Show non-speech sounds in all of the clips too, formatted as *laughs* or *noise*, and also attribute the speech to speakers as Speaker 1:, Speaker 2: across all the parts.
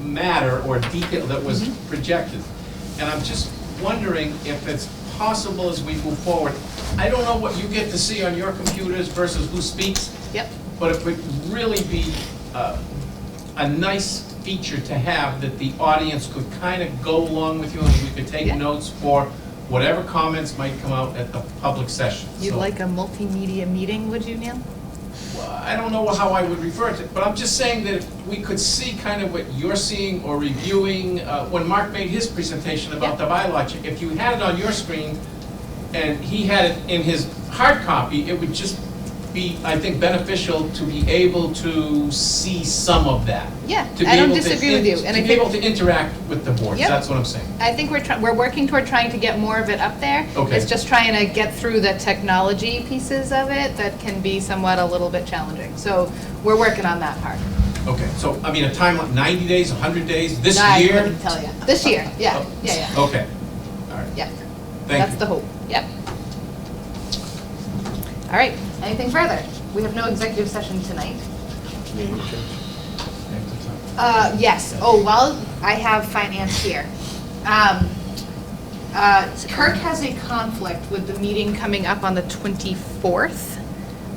Speaker 1: matter or detail that was
Speaker 2: Mm-hmm.
Speaker 1: projected. And I'm just wondering if it's possible as we move forward, I don't know what you get to see on your computers versus who speaks,
Speaker 2: Yep.
Speaker 1: but it would really be uh, a nice feature to have that the audience could kind of go along with you and we could take
Speaker 2: Yeah.
Speaker 1: notes for whatever comments might come out at the public session.
Speaker 2: You'd
Speaker 1: So,
Speaker 2: like a multimedia meeting, would you, Neil?
Speaker 1: well, I don't know how I would revert it, but I'm just saying that if we could see kind of what you're seeing or reviewing. uh, When Mark made his presentation about the
Speaker 2: Yeah.
Speaker 1: bylaw, check, if you had it on your screen and he had it in his hard copy, it would just be, I think, beneficial to be able to see some of that.
Speaker 2: Yeah,
Speaker 1: to be
Speaker 2: I don't
Speaker 1: able to
Speaker 2: disagree with
Speaker 1: in-
Speaker 2: you, and I
Speaker 1: To be able
Speaker 2: think,
Speaker 1: to interact with the boards,
Speaker 2: Yep.
Speaker 1: that's what I'm saying.
Speaker 2: I think we're, try- we're working toward trying to get more of it up there.
Speaker 1: Okay.
Speaker 2: It's just trying to get through the technology pieces of it that can be somewhat a little bit challenging. So we're working on that part.
Speaker 1: Okay, so, I mean, a timeline, 90 days, 100 days, this year?
Speaker 2: I wouldn't tell you. This year, yeah,
Speaker 1: Oh,
Speaker 2: yeah, yeah,
Speaker 1: Okay, all right,
Speaker 2: yeah.
Speaker 1: thank
Speaker 2: That's
Speaker 1: you.
Speaker 2: the hope, yep. All right, anything further? We have no executive session tonight. Uh, yes, oh, well, I have finance here. Um, uh, Kirk has a conflict with the meeting coming up on the 24th.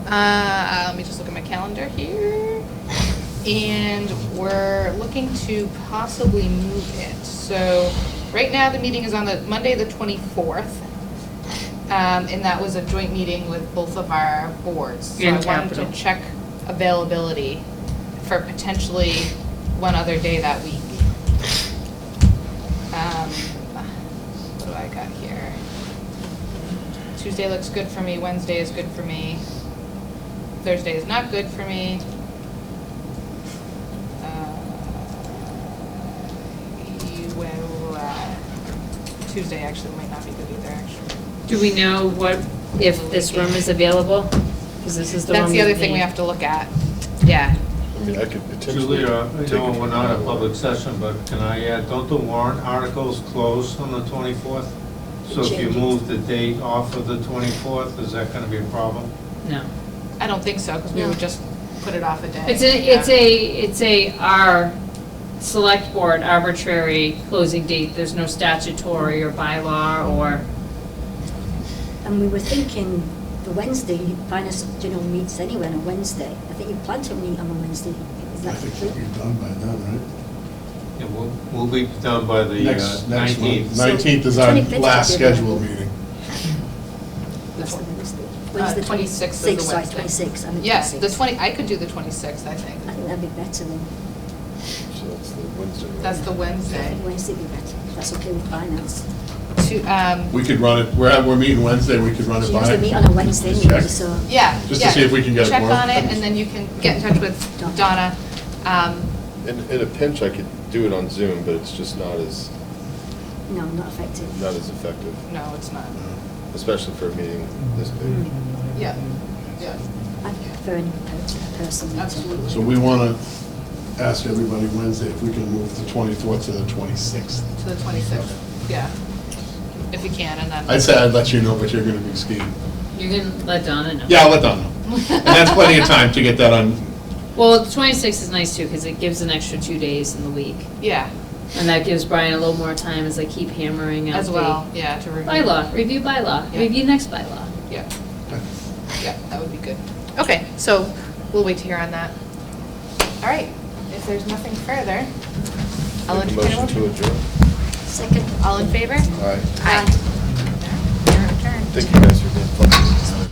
Speaker 2: Uh, let me just look at my calendar here. And we're looking to possibly move it. So, right now, the meeting is on the, Monday, the 24th. Um, and that was a joint meeting with both of our boards. So I
Speaker 3: And
Speaker 2: wanted to
Speaker 3: Capitol.
Speaker 2: check availability for potentially one other day that week. Um, What do I got here? Tuesday looks good for me, Wednesday is good for me, Thursday is not good for me. Uh, Well, uh, Tuesday actually might not be good either, actually.
Speaker 3: Do we know what, if this room is available? Because this is the one
Speaker 2: That's the other thing we
Speaker 3: need.
Speaker 2: have to look at, yeah.
Speaker 4: I mean, I could potentially.
Speaker 5: Julia, I
Speaker 4: take
Speaker 5: know
Speaker 4: it
Speaker 5: we're
Speaker 4: from
Speaker 5: not
Speaker 4: now
Speaker 5: a
Speaker 4: on.
Speaker 5: public session, but can I add, don't the warrant articles close on the 24th? So if you move the date off of the 24th, is that going to be a problem?
Speaker 3: No.
Speaker 2: I don't think so, because we would just put it off a day.
Speaker 3: It's a, it's a, it's a, our select board arbitrary closing date. There's no statutory or bylaw or,
Speaker 6: And we were thinking the Wednesday, finance, you know, meets anyway on a Wednesday. I think you plan to meet on a Wednesday. Is
Speaker 7: I
Speaker 6: that
Speaker 7: think
Speaker 6: true?
Speaker 7: that you're done by then, right?
Speaker 5: Yeah, We'll we'll be done by the uh,
Speaker 7: Next, next month.
Speaker 5: 19th.
Speaker 7: Nineteenth is
Speaker 6: So,
Speaker 7: our
Speaker 6: 25th is
Speaker 7: last
Speaker 6: good.
Speaker 7: scheduled meeting.
Speaker 6: That's the Wednesday.
Speaker 2: Uh,
Speaker 6: Wednesday,
Speaker 2: 26th is the
Speaker 6: Six, sorry,
Speaker 2: Wednesday.
Speaker 6: twenty-six, I meant
Speaker 2: Yes, the
Speaker 6: 26.
Speaker 2: 20, I could do the 26th, I think.
Speaker 6: I think that'd be better than,
Speaker 4: So that's the Wednesday. right?
Speaker 2: That's the
Speaker 6: I
Speaker 2: Wednesday.
Speaker 6: think Wednesday'd be better. if That's okay with finance.
Speaker 2: To, um,
Speaker 7: We could run it, we're, at- we're meeting Wednesday, we could run it
Speaker 6: She
Speaker 7: by.
Speaker 6: usually meet on a Wednesday
Speaker 7: Just
Speaker 6: anyway,
Speaker 7: check.
Speaker 6: so.
Speaker 2: yeah,
Speaker 7: Just to
Speaker 2: yeah.
Speaker 7: see if we can get it
Speaker 2: Check
Speaker 7: worked.
Speaker 2: on it, and then you can get in touch with Donna. Um,
Speaker 4: In, in a pinch, I could do it on Zoom, but it's just not as,
Speaker 6: No, not effective.
Speaker 4: not as effective,
Speaker 2: No, it's not.
Speaker 4: especially for a meeting this big.
Speaker 2: Yeah, yeah.
Speaker 6: I prefer an in-person meeting.
Speaker 2: Absolutely.
Speaker 7: So we want to ask everybody Wednesday if we can move the twenty-fourth to the twenty-sixth.
Speaker 2: To the 26th, yeah. If you can, and then.
Speaker 7: I'd say I'd let you know, but you're going to be skiing.
Speaker 3: you can let Donna know.
Speaker 7: Yeah, I'll let Don know. And that's plenty of time to get that on.
Speaker 3: Well, the 26th is nice too, because it gives an extra two days in the week.
Speaker 2: *laughs* Yeah,
Speaker 3: And that gives Brian a little more time as I keep hammering out
Speaker 2: as
Speaker 3: the
Speaker 2: well, yeah, to review.
Speaker 3: Bylaw, review bylaw,
Speaker 2: Yeah.
Speaker 3: review next bylaw.
Speaker 2: Yeah, yeah, that would be good. Okay, so we'll wait to hear on that. All right, if there's nothing further, I'll
Speaker 4: Make a
Speaker 2: entertain a
Speaker 4: motion to
Speaker 2: motion.
Speaker 4: adjourn.
Speaker 6: Second.
Speaker 2: All in favor?
Speaker 4: All right.
Speaker 2: Aye. Your turn.
Speaker 4: Thank you guys for being flexible.